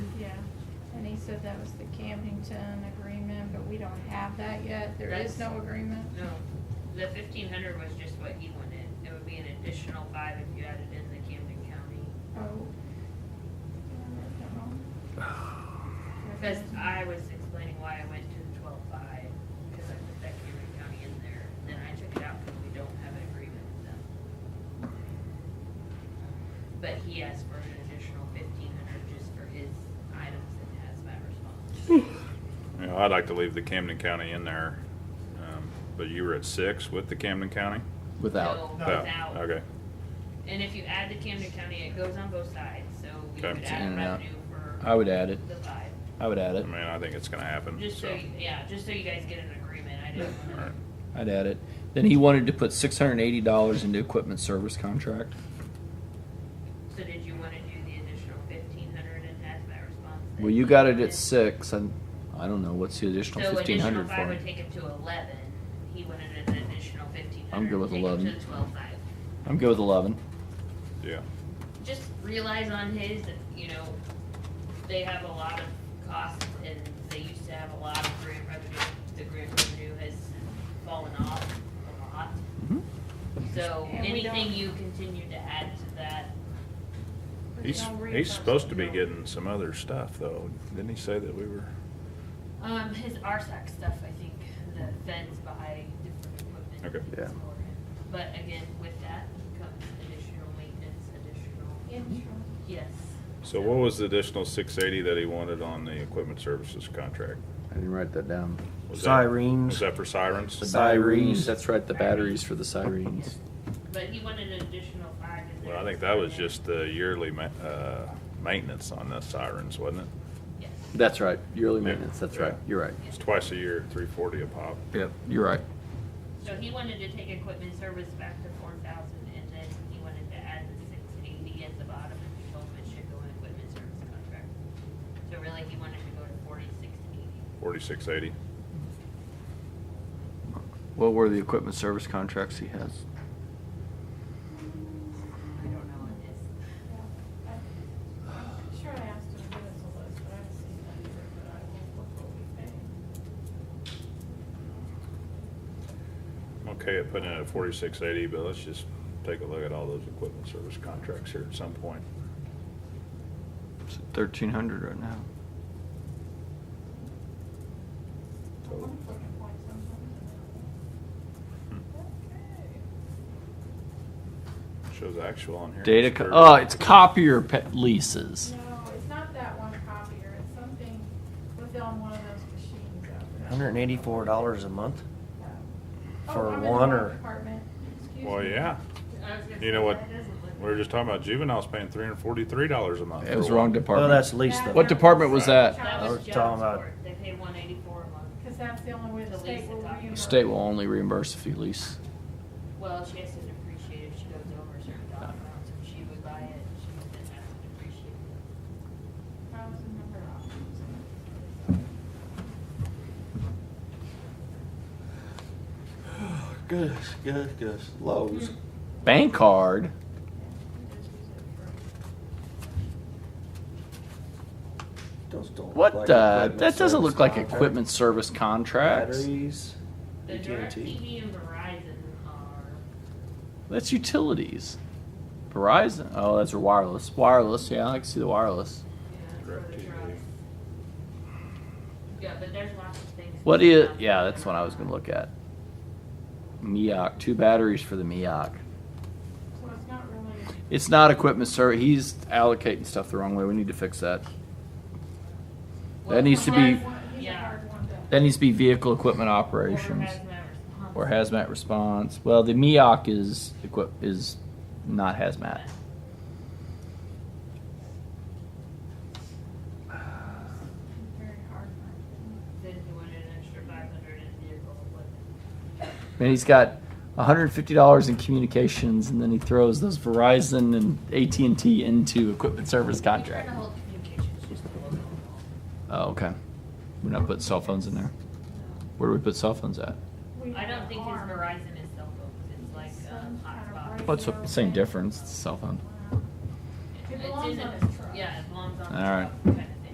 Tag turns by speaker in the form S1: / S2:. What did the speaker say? S1: said that was the Camden agreement, but we don't have that yet. There is
S2: That's-
S1: no agreement.
S2: No, the fifteen hundred was just what he wanted. It would be an additional five if you added in the Camden County.
S1: Oh. Did I write that wrong?
S2: Because I was explaining why I went to twelve-five, because I put that Camden County in there. Then I took it out because we don't have an agreement with them. But he asked for an additional fifteen hundred just for his items and hazmat response.
S3: You know, I'd like to leave the Camden County in there, um, but you were at six with the Camden County?
S2: So
S4: without.
S3: No.
S2: without-
S3: Okay,
S2: And if you add the Camden County, it goes on both sides, so we
S3: Okay.
S2: could
S3: It's
S2: add
S4: in and out.
S2: revenue for
S4: I would add it.
S2: the five.
S4: I would add
S3: I
S4: it.
S3: mean, I think it's gonna happen,
S2: Just so,
S3: so.
S2: you- yeah, just so you guys get an agreement, I didn't wanna,
S3: Alright.
S4: I'd add it. Then he wanted to put six hundred and eighty dollars into equipment service contract.
S2: so did you wanna do the additional fifteen hundred in hazmat response? that
S4: Well, you got it
S2: wanted?
S4: at six, and I don't know what's the additional
S2: So
S4: fifteen
S2: additional
S4: hundred
S2: five
S4: for.
S2: would take him to eleven, he wanted an additional fifteen hundred.
S4: I'm good with 11.
S2: Take him to twelve five.
S4: I'm good with eleven.
S3: Yeah,
S2: Just realize on his, you know, they have a lot of costs and they used to have a lot of grant revenue, the grant revenue has fallen off a lot.
S4: Mhm.
S2: So
S1: And we don't-
S2: anything you continue to add to that,
S1: But
S3: he's,
S1: no
S3: he's
S1: refunds,
S3: supposed to be
S1: no.
S3: getting some other stuff, though. Didn't he say that we were?
S2: um, his RSAC stuff, I think, that feds buy different equipment.
S3: Okay.
S4: Yeah.
S2: for him. But again, with that comes additional maintenance, additional,
S1: Insurance.
S2: yes.
S3: So what was the additional six eighty that he wanted on the equipment services contract?
S5: I didn't write that down.
S3: Was that- Was
S6: Sirens.
S3: that for
S5: The
S3: sirens?
S5: sirens, that's right, the batteries for the sirens.
S2: But he wanted an additional five. in
S3: Well,
S2: there.
S3: I think that was just the yearly ma- uh, maintenance on the sirens, wasn't it?
S2: Yes.
S5: That's right, yearly
S3: Yeah.
S5: maintenance, that's right,
S3: Yeah.
S5: you're right.
S3: It's twice a year, three forty a pop.
S4: Yep, you're right.
S2: So he wanted to take equipment service back to four thousand and then he wanted to add the six eighty at the bottom and he told him it should go in equipment service contract. So really, he wanted to go to forty-six eighty.
S3: Forty-six eighty.
S4: What were the equipment service contracts he has?
S2: I don't know on this.
S1: Yeah, I- I'm Sure, I asked him to give us a list, but I haven't seen that either, but I will look what we pay.
S3: Okay, it put in at forty-six eighty, but let's just take a look at all those equipment service contracts here at some point.
S4: Thirteen hundred right now.
S1: I wanna put a point sometimes in
S3: Shows actual on here.
S4: Data.
S3: It's
S4: Co-
S3: thirty.
S4: oh, it's copier pet leases.
S1: there. No, it's not that one copier, it's something within one of those machines out there.
S6: Hundred and eighty-four dollars a month.
S1: Oh,
S6: for
S1: I'm in the
S6: one
S1: wrong
S6: or-
S1: Department, excuse me.
S3: Well, yeah,
S2: I was gonna
S3: you know
S2: say,
S3: what,
S2: that doesn't look
S3: we were just talking about juveniles paying three hundred forty-three dollars a month.
S4: It was
S3: for
S4: the wrong
S3: one.
S4: department.
S6: Well, Oh, that's lease
S1: That-
S6: though.
S4: What department was that?
S2: That
S1: I
S2: was
S6: was
S2: jobs
S6: talking about-
S2: court. They paid one eighty-four a month.
S1: Cause that's the only way the
S2: The
S1: state
S2: lease
S1: will
S2: is on.
S1: reimburse.
S4: State will only reimburse if you lease.
S2: Well, she has to depreciate if she goes over a certain dollar amount, so if she would buy it, she would then have to depreciate it.
S1: I was in number off.
S5: Good, good, good. Lowe's.
S4: Bank card.
S5: Those don't.
S4: What
S5: look like
S4: the?
S5: equipment
S4: That doesn't
S5: service
S4: look like
S5: contract.
S4: equipment service contracts.
S5: Batteries.
S2: The
S5: AT&T.
S2: DirecTV and Verizon are,
S4: That's utilities. Verizon. Oh, that's wireless. Wireless. Yeah, I can see the wireless.
S2: yeah, for the
S3: DirecTV.
S2: trucks. Yeah, but there's lots of things.
S4: What is? Yeah, that's what I was gonna look at. Miak. Two batteries for the Miak.
S1: So it's not really.
S4: It's not equipment service. He's allocating stuff the wrong way. We need to fix that.
S2: Well,
S4: That needs to be.
S1: He's a
S2: Yeah.
S1: hard one to.
S4: That needs to be vehicle equipment
S2: Or
S4: operations.
S2: hazmat response.
S4: Or hazmat response. Well, the Miak is equip is not hazmat.
S1: Very hard.
S2: Then you wanted an extra five hundred in vehicle equipment.
S4: And he's got $150 in communications, and then he throws those Verizon and AT and T into equipment service
S2: We're trying
S4: contract.
S2: to hold communications just a little bit.
S4: Oh, okay. We're not putting cell phones in there. Where do we put cell phones at?
S1: We
S2: I don't think his
S1: are.
S2: Verizon is cell phones, it's like, um, hotspot.
S4: Well, it's the same difference. It's a cell phone.
S1: It
S2: It's
S1: belongs
S2: in
S1: on
S2: a-
S1: his truck.
S2: Yeah, it belongs on.
S4: All right.
S2: the truck. Okay.